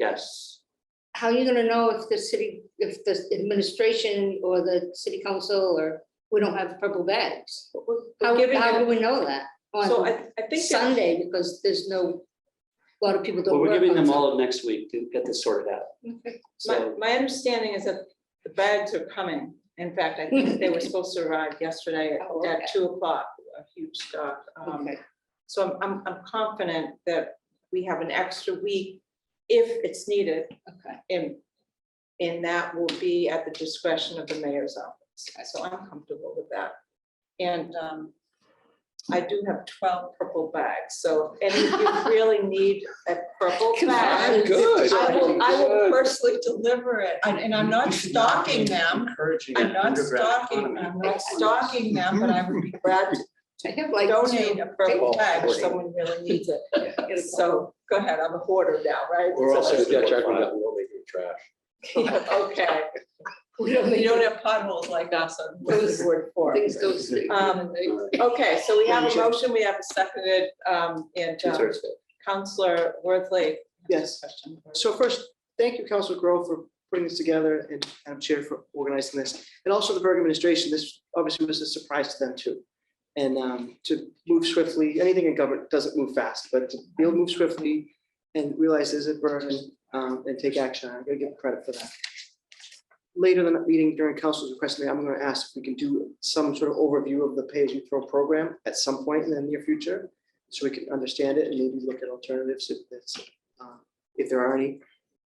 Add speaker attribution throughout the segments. Speaker 1: Yes.
Speaker 2: how are you gonna know if the city, if the administration or the city council or, we don't have purple bags? How,
Speaker 3: giving
Speaker 2: how
Speaker 3: it-
Speaker 2: do we know that?
Speaker 3: So I,
Speaker 2: On
Speaker 3: I think. that-
Speaker 2: Sunday, because there's no, a lot of people
Speaker 1: Well,
Speaker 2: don't work.
Speaker 1: we're giving
Speaker 2: on
Speaker 1: them all of next week to get this sorted out.
Speaker 2: Sunday.
Speaker 3: My,
Speaker 1: So,
Speaker 3: my understanding is that the bags are coming. In fact, I think they were supposed to arrive yesterday
Speaker 2: Oh,
Speaker 3: at-
Speaker 2: okay.
Speaker 3: at two o'clock, a huge stock. Um,
Speaker 2: Okay,
Speaker 3: So I'm, I'm, I'm confident that we have an extra week if it's needed.
Speaker 2: okay.
Speaker 3: And, and that will be at the discretion of the mayor's office. So I'm comfortable with that. And um, I do have twelve purple bags, so if any of you really need a purple
Speaker 2: Come
Speaker 3: bag.
Speaker 2: on.
Speaker 4: Good.
Speaker 3: I will, I will
Speaker 4: Good.
Speaker 3: personally deliver it, and and I'm not stalking them,
Speaker 1: Encouraging
Speaker 3: I'm not
Speaker 1: underground
Speaker 3: stalking,
Speaker 1: economy.
Speaker 3: I'm not stalking them, but I would be glad to
Speaker 2: I have like
Speaker 3: donate
Speaker 2: two,
Speaker 3: a purple
Speaker 4: Well,
Speaker 3: bag if
Speaker 4: hoarding.
Speaker 3: someone really needs it. So, go ahead, I'm a hoarder now, right?
Speaker 4: We're also,
Speaker 3: So-
Speaker 4: yeah, Jack, we're not rolling in trash.
Speaker 3: Okay,
Speaker 2: we don't
Speaker 3: you
Speaker 2: make
Speaker 3: don't have potholes like us on
Speaker 2: Those
Speaker 3: Woodward Fork.
Speaker 2: things go. through.
Speaker 3: Um,
Speaker 1: Uh,
Speaker 3: Okay, so we have a
Speaker 1: Motion.
Speaker 3: motion, we have a seconded, um, and um,
Speaker 1: two-thirds vote.
Speaker 3: Counselor Worthley.
Speaker 5: Yes.
Speaker 3: Question.
Speaker 5: So first, thank you, Council Grove, for putting this together and Madam Chair for organizing this. And also the Berg administration, this obviously was a surprise to them too. And um, to move swiftly, anything in government doesn't move fast, but to be able to move swiftly and realize there's a burden um, and take action, I'm gonna give credit for that. Later in the meeting during council's request, I'm gonna ask if we can do some sort of overview of the Page and Throw program at some point in the near future, so we can understand it and maybe look at alternatives if that's um, if there are any.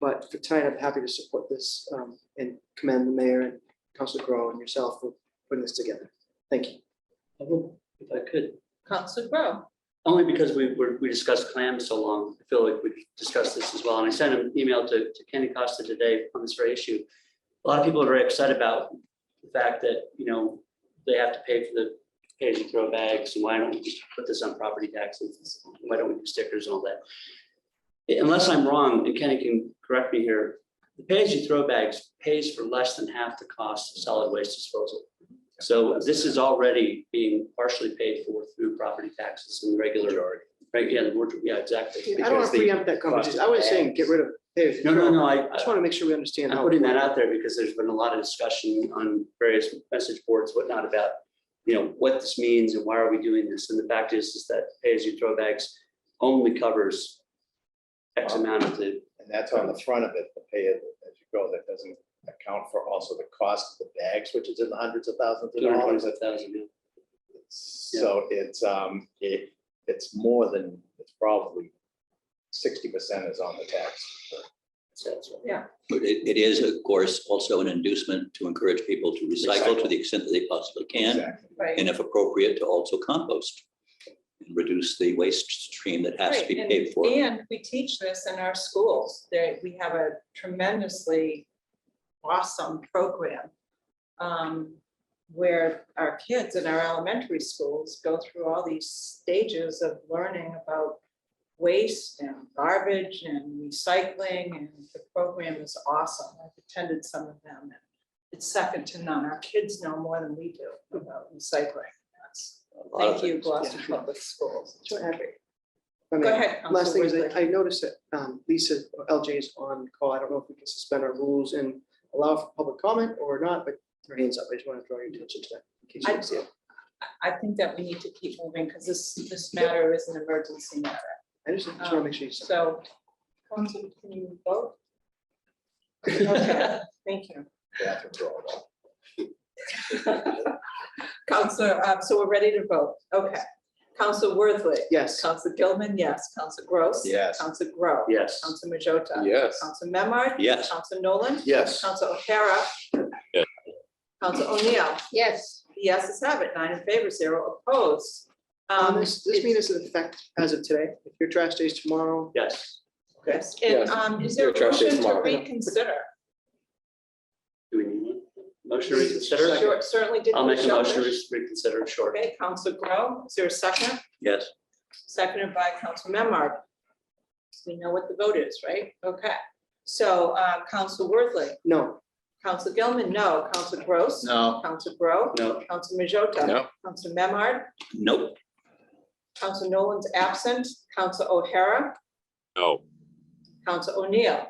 Speaker 5: But for tonight, I'm happy to support this um, and commend the mayor and Council Grow and yourself for putting this together. Thank you.
Speaker 1: I will, If I could,
Speaker 3: Counselor Grow.
Speaker 1: only because we were, we discussed clams so long, I feel like we discussed this as well. And I sent an email to, to Kenny Costa today on this very issue. A lot of people are very upset about the fact that, you know, they have to pay for the pay and throw bags, and why don't we just put this on property taxes? Why don't we do stickers and all that? Unless I'm wrong, and Kenny can correct me here, the pay as you throw bags pays for less than half the cost of solid waste disposal. So this is already being partially paid for through property taxes and regular, right, yeah, the word- yeah, exactly.
Speaker 5: I don't want
Speaker 1: because
Speaker 5: to
Speaker 1: the-
Speaker 5: preempt that conversation. I was saying, get rid of. Page.
Speaker 1: No, no, no, I,
Speaker 5: I just want to make sure we understand.
Speaker 3: Oh.
Speaker 1: I'm
Speaker 5: how-
Speaker 1: putting that out there because there's been a lot of discussion on various message boards, whatnot, about, you know, what this means and why are we doing this? And the fact is, is that pay-as-you-throw bags only covers X amount of the
Speaker 6: And that's on the front of it, the pay as as you go, that doesn't account for also the cost of the bags, which is in the hundreds of thousands of
Speaker 1: two hundred and
Speaker 6: dollars.
Speaker 1: twenty-five thousand.
Speaker 6: So it's, um, it, it's more than, it's probably sixty percent is on the tax.
Speaker 7: But it, it is, of course, also an inducement to encourage people to recycle to
Speaker 6: Recycle.
Speaker 7: the extent that they possibly can,
Speaker 6: Exactly.
Speaker 3: Right.
Speaker 7: and if appropriate, to also compost. And reduce the waste stream that has to be
Speaker 3: Right, and-
Speaker 7: paid for.
Speaker 3: And we teach this in our schools, that we have a tremendously awesome program um, where our kids in our elementary schools go through all these stages of learning about waste and garbage and recycling, and the program is awesome. I've attended some of them, and it's second to none. Our kids know more than we do about recycling. That's-
Speaker 7: A lot of
Speaker 3: Thank you,
Speaker 7: things.
Speaker 3: Gloucester Public Schools. It's
Speaker 5: Sure.
Speaker 3: terrific.
Speaker 5: I mean,
Speaker 3: Go ahead.
Speaker 5: Last thing is,
Speaker 3: Counselor
Speaker 5: that I noticed that um, Lisa or LJ is on call. I don't know if we can suspend our rules and allow for public comment or not, but your hands up. I just want to draw your attention to that. in case you
Speaker 3: I,
Speaker 5: don't see it.
Speaker 3: I think that we need to keep moving because this, this matter is an emergency matter.
Speaker 5: I just want
Speaker 3: Um,
Speaker 5: to make sure you.
Speaker 3: So, Council, can you vote? Okay, Thank you.
Speaker 6: Bathrooms are all gone.
Speaker 3: Counselor, um, so we're ready to vote. Okay. Council Worthley.
Speaker 5: Yes.
Speaker 3: Council Gilman, yes. Council Gross.
Speaker 6: Yes.
Speaker 3: Council Grow.
Speaker 1: Yes.
Speaker 3: Council Majota.
Speaker 4: Yes.
Speaker 3: Council Memard.
Speaker 7: Yes.
Speaker 3: Council Nolan.
Speaker 6: Yes.
Speaker 3: Council O'Hara.
Speaker 7: Yes.
Speaker 3: Council O'Neill.
Speaker 2: Yes,
Speaker 3: The yeses have it, nine in favor, zero opposed.
Speaker 5: Um,
Speaker 3: Um,
Speaker 5: This this meeting is in effect as of today. If your trash day is tomorrow,
Speaker 1: Yes.
Speaker 3: Yes, and
Speaker 4: Yes.
Speaker 3: um, is there a
Speaker 4: Yeah, trustee
Speaker 3: motion to
Speaker 4: Smollett.
Speaker 3: reconsider?
Speaker 1: Do we need one? Motion to reconsider?
Speaker 3: Sure, Certainly didn't.
Speaker 1: I'll make a
Speaker 3: Michelle
Speaker 1: motion to
Speaker 3: Bush.
Speaker 1: re- reconsider, sure.
Speaker 3: Okay, Council Grow, is there a second?
Speaker 7: Yes.
Speaker 3: Seconded by Council Memard. We know what the vote is, right? Okay, so uh, Council Worthley,
Speaker 5: no,
Speaker 3: Council Gilman, no, Council Gross.
Speaker 6: No.
Speaker 3: Council Grow,
Speaker 1: No,
Speaker 3: Council Majota.
Speaker 4: No.
Speaker 3: Council Memard,
Speaker 7: Nope.
Speaker 3: Council Nolan's absent, Council O'Hara,
Speaker 4: No.
Speaker 3: Council O'Neill.